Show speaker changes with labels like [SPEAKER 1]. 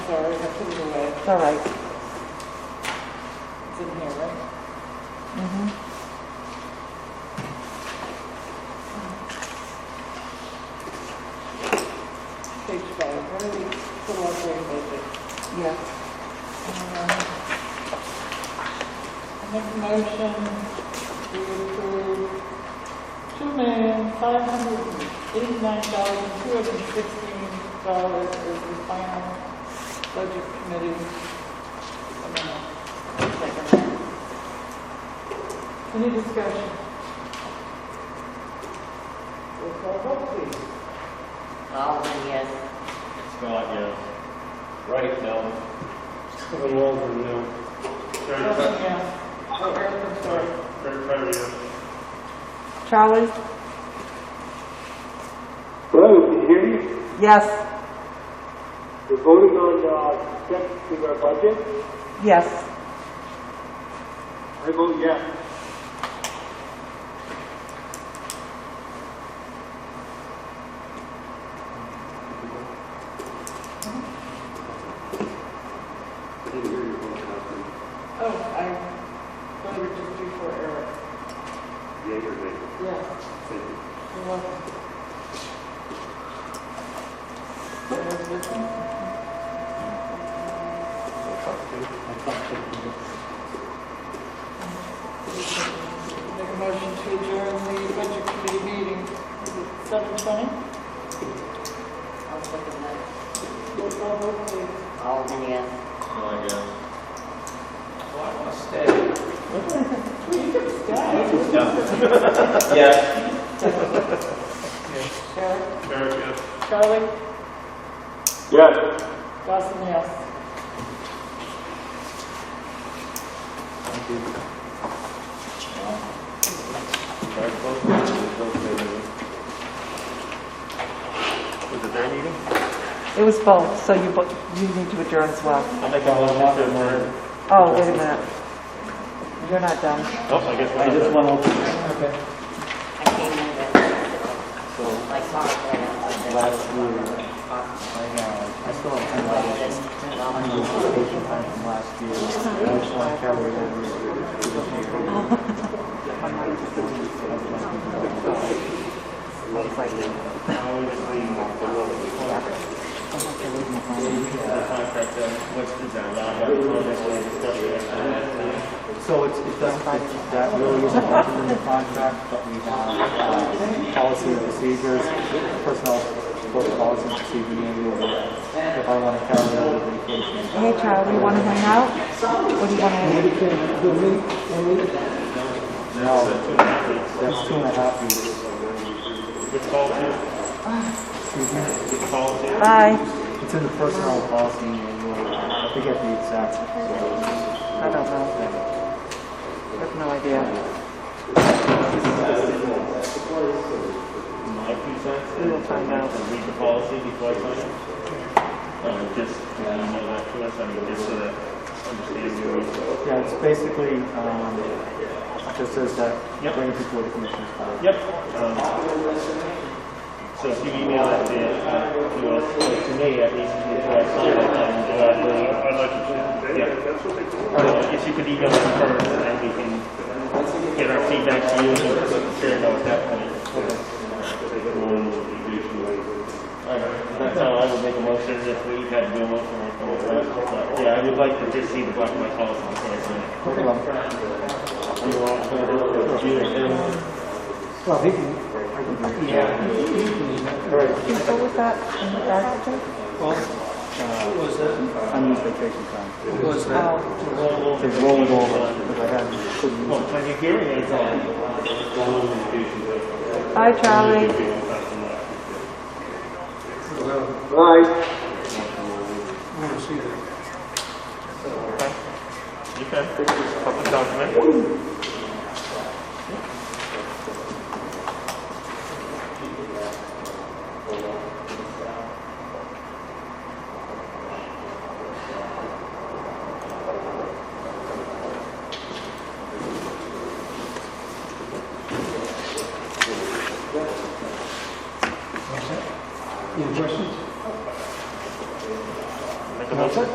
[SPEAKER 1] sorry, I put it away.
[SPEAKER 2] It's all right.
[SPEAKER 1] It's in here, right?
[SPEAKER 2] Mm-hmm.
[SPEAKER 1] Page five, why do we pull out their budget?
[SPEAKER 2] Yeah.
[SPEAKER 1] Um, Uh, Make a motion to approve two million, five hundred and eighty-nine thousand, two hundred and sixteen dollars as the final budget committee. amount. Second. Any discussion? Roll call vote, please.
[SPEAKER 3] Baldwin, yes.
[SPEAKER 4] Scott, yes. Right, no.
[SPEAKER 5] Kevin Waldron, no.
[SPEAKER 1] Justin, yes. Oh, Eric, I'm sorry.
[SPEAKER 5] Craig Perry, yes.
[SPEAKER 2] Charlie?
[SPEAKER 5] Hello, can you hear me?
[SPEAKER 2] Yes,
[SPEAKER 5] We're voting on, uh, steps to our budget.
[SPEAKER 2] yes.
[SPEAKER 5] I vote yes. Didn't hear your vote, Catherine.
[SPEAKER 1] Oh, I voted just before Eric.
[SPEAKER 5] Yea or nay?
[SPEAKER 1] Yes,
[SPEAKER 5] Thank you.
[SPEAKER 1] you're welcome. Make a motion to adjourn the budget committee meeting. Is it seven twenty?
[SPEAKER 3] I'll second that.
[SPEAKER 1] Roll call vote, please.
[SPEAKER 3] Baldwin, yes.
[SPEAKER 4] Scott, yes.
[SPEAKER 1] Eric,
[SPEAKER 5] Eric, yes.
[SPEAKER 1] Charlie,
[SPEAKER 5] Yes.
[SPEAKER 1] Dawson, yes.
[SPEAKER 4] Was it their meeting?
[SPEAKER 2] It was both, so you, bo- you need to adjourn as well.
[SPEAKER 4] I think I was not there more.
[SPEAKER 2] Oh, wait a minute. You're not done.
[SPEAKER 4] Oh, I guess. I just want
[SPEAKER 3] I came in with, like, Mark, and I was like,
[SPEAKER 6] I know. I still have ten dollars. I'm gonna time from last year. I just want to carry it over to this year.
[SPEAKER 4] contract, uh, what's the down, I have a this discussion.
[SPEAKER 6] So it's, it doesn't, it- that really isn't mentioned in the contract, but we have uh, policy and procedures, personnel both policy and procedure manual. If I want to carry it over to vacation.
[SPEAKER 2] Hey, Charlie, you want to hang out? What do you want to do?
[SPEAKER 6] No, that's two and a half years.
[SPEAKER 4] It's called, it's
[SPEAKER 6] Excuse me?
[SPEAKER 4] called,
[SPEAKER 2] Bye.
[SPEAKER 6] It's in the personnel policy manual. I forget the exact.
[SPEAKER 2] I don't know. I have no idea.
[SPEAKER 4] my two cents.
[SPEAKER 2] We will find out.
[SPEAKER 4] To Read the policy before I sign it. Uh, just, you know, that to us, I mean, just so that, understand your,
[SPEAKER 6] Yeah, it's basically, um, just says that
[SPEAKER 4] Yep.
[SPEAKER 6] bring people to the commissioners. file.
[SPEAKER 4] yep. um, So if you email it to, uh, to us, or to me, at least, before I sign it, um, uh,
[SPEAKER 5] I'd like to say,
[SPEAKER 4] Yeah.
[SPEAKER 5] that's what they told me.
[SPEAKER 4] Uh, If you could email it first, and then we can get our feedback to you and share it out at that point. Alright, That's how I would make a motion if we had to do a motion or something. But, Yeah, I would like to just see the black and white policy before I sign it.
[SPEAKER 6] No problem.
[SPEAKER 4] You want to do it, June, and-
[SPEAKER 6] Well, he can, I can do it. Yeah. All right,
[SPEAKER 2] Can you go with that in the back, I think?
[SPEAKER 6] unused vacation time.
[SPEAKER 2] Oh,
[SPEAKER 6] They roll it over, because I had, couldn't use
[SPEAKER 4] Well, when you're hearing it, it's on.
[SPEAKER 2] Bye, Charlie.
[SPEAKER 4] Okay. Public document.